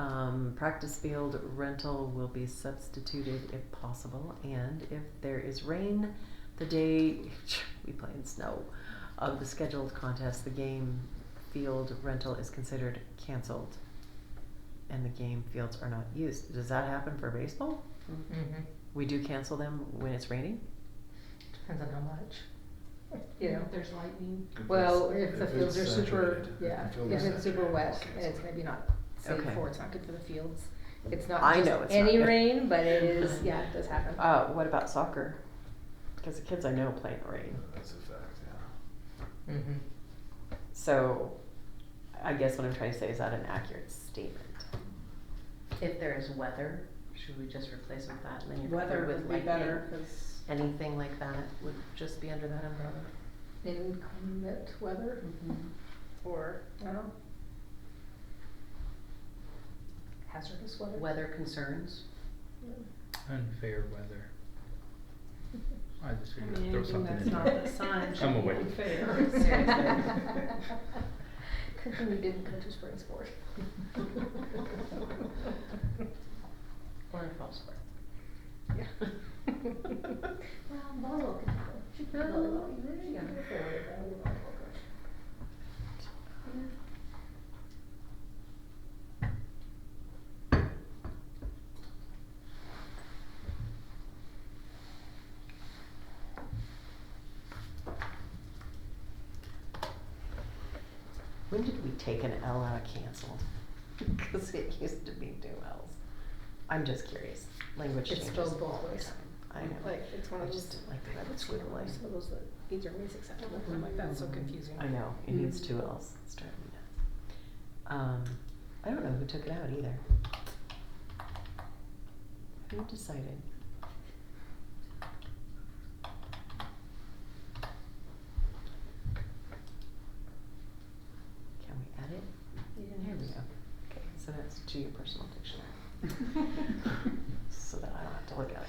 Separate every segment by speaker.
Speaker 1: Um, practice field rental will be substituted if possible, and if there is rain, the day we play in snow of the scheduled contest, the game field rental is considered canceled, and the game fields are not used. Does that happen for baseball?
Speaker 2: Mm-hmm.
Speaker 1: We do cancel them when it's raining.
Speaker 2: Depends on how much. You know,
Speaker 3: If there's lightning,
Speaker 4: If
Speaker 2: well,
Speaker 4: it's-
Speaker 2: if the
Speaker 4: if
Speaker 2: fields are
Speaker 4: it's
Speaker 2: super,
Speaker 4: saturated,
Speaker 2: yeah,
Speaker 4: the field
Speaker 2: if
Speaker 4: is
Speaker 2: it's super
Speaker 4: saturated,
Speaker 2: wet
Speaker 4: okay,
Speaker 2: and it's
Speaker 4: so-
Speaker 2: maybe not safe
Speaker 1: Okay.
Speaker 2: for, it's not good for the fields. It's not
Speaker 1: I know
Speaker 2: just
Speaker 1: it's not
Speaker 2: any
Speaker 1: good.
Speaker 2: rain, but it is, yeah, it does happen.
Speaker 1: Uh, what about soccer? Because the kids I know play in the rain.
Speaker 4: That's a fact, yeah.
Speaker 2: Mm-hmm.
Speaker 1: So, I guess what I'm trying to say is that an accurate statement.
Speaker 5: If there is weather, should we just replace with that and then you're
Speaker 3: weather
Speaker 5: covered with
Speaker 3: would be
Speaker 5: lightning?
Speaker 3: better, cause.
Speaker 5: Anything like that would just be under that umbrella.
Speaker 2: Inclement weather
Speaker 3: Mm-hmm.
Speaker 2: or, I don't know. Hazardous weather.
Speaker 5: Weather concerns,
Speaker 6: Unfair weather. I just
Speaker 3: I
Speaker 6: figured
Speaker 3: mean,
Speaker 6: I'd throw
Speaker 3: anything
Speaker 6: something
Speaker 3: that's
Speaker 6: in
Speaker 3: not
Speaker 6: there.
Speaker 3: the sun
Speaker 6: I'm
Speaker 3: should be
Speaker 6: awake.
Speaker 3: unfair.
Speaker 5: Seriously.
Speaker 2: Good thing you didn't go to spring sport.
Speaker 5: or a false sport.
Speaker 2: Yeah. Well, volleyball can happen. She can volleyball. You really
Speaker 5: Yeah.
Speaker 2: should go for it, but I'm a volleyball coach.
Speaker 1: When did we take an L out of canceled? Because it used to be two L's. I'm just curious. Language
Speaker 2: It's
Speaker 1: changes
Speaker 2: spelled both
Speaker 1: all the
Speaker 2: ways.
Speaker 1: time. I know.
Speaker 2: Like, it's one
Speaker 1: I
Speaker 2: of those.
Speaker 1: just didn't like the way
Speaker 2: I
Speaker 1: it was
Speaker 2: just don't like
Speaker 1: squiggly.
Speaker 2: Some of those, that these are ways acceptable, I'm like, that's so confusing.
Speaker 1: I know. It
Speaker 2: Mm-hmm.
Speaker 1: needs two L's. It's driving me nuts. Um, I don't know who took it out either. Who decided? Can we add it?
Speaker 2: You didn't
Speaker 1: Here
Speaker 2: have
Speaker 1: we
Speaker 2: to-
Speaker 1: go. Okay, so that's to your personal dictionary. So that I don't have to look at it.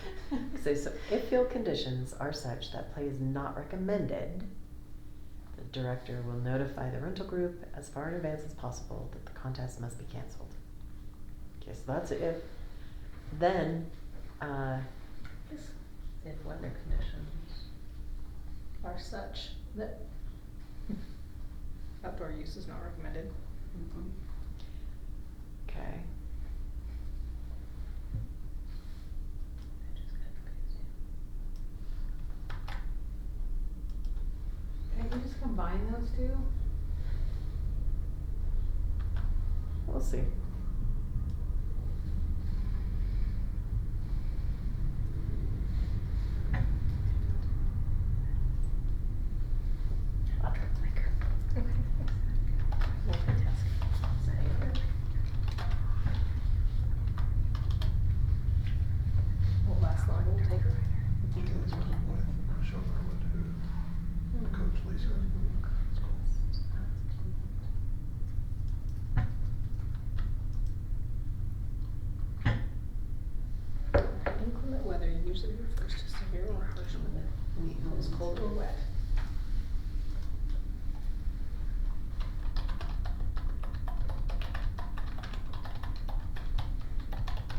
Speaker 1: So, so if field conditions are such that play is not recommended, the director will notify the rental group as far in advance as possible that the contest must be canceled. Okay, so that's a if. Then, uh,
Speaker 5: If weather conditions,
Speaker 2: Are such that outdoor use is not recommended.
Speaker 3: Mm-hmm.
Speaker 1: okay,
Speaker 5: I just got crazy.
Speaker 3: Can you just combine those two?
Speaker 1: we'll see.
Speaker 5: I'll drop the liquor. Multitasking. Sorry.
Speaker 2: Won't last long, won't take.
Speaker 4: Okay, that's what I'm with. Sean Irwin, who coached Lisa. It's cool.
Speaker 2: Inclement weather usually refers to severe or harsh weather. It's cold or wet.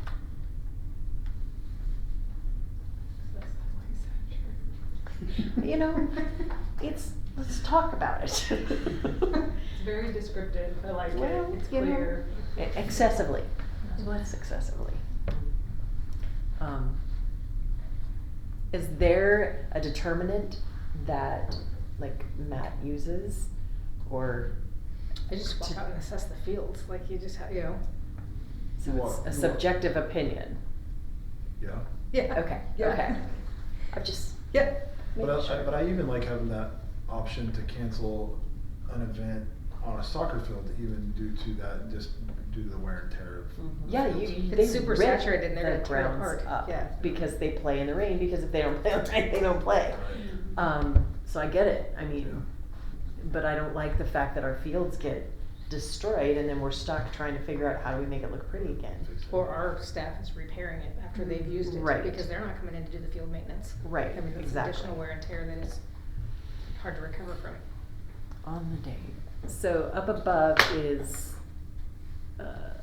Speaker 1: You know, it's, let's talk about it.
Speaker 3: It's very descriptive, I like it,
Speaker 1: Well,
Speaker 3: it's
Speaker 1: you know, e-,
Speaker 3: clear.
Speaker 1: Excessively. Less excessively. Um, Is there a determinant that, like, Matt uses, or
Speaker 2: I just walk
Speaker 1: To-
Speaker 2: out and assess the fields, like you just, ha- you know.
Speaker 1: so it's
Speaker 4: You are-
Speaker 1: a
Speaker 4: you are-
Speaker 1: subjective opinion?
Speaker 4: Yeah,
Speaker 2: Yeah.
Speaker 1: Okay,
Speaker 2: Yeah.
Speaker 1: okay. I'm just
Speaker 2: Yeah.
Speaker 4: but
Speaker 1: making
Speaker 4: I, I-
Speaker 1: sure.
Speaker 4: but I even like having that option to cancel an event on a soccer field even due to that, just due to the wear and tear of.
Speaker 2: Mm-hmm.
Speaker 4: the
Speaker 1: Yeah, you,
Speaker 4: fields.
Speaker 1: you- they
Speaker 2: It's super
Speaker 1: rip
Speaker 2: saturated and they're
Speaker 1: the
Speaker 2: gonna tear it
Speaker 1: grounds
Speaker 2: apart,
Speaker 1: up
Speaker 2: yeah.
Speaker 1: because they play in the rain, because if they don't play in the rain, they don't play. Um, so I get it, I mean.
Speaker 4: Yeah.
Speaker 1: But I don't like the fact that our fields get destroyed and then we're stuck trying to figure out how do we make it look pretty again.
Speaker 4: Fix it.
Speaker 2: Or our staff is repairing it after they've used it,
Speaker 1: Right.
Speaker 2: because they're not coming in to do the field maintenance.
Speaker 1: Right,
Speaker 2: I mean, that's
Speaker 1: exactly.
Speaker 2: additional wear and tear that is hard to recover from.
Speaker 1: On the day. So up above is, uh,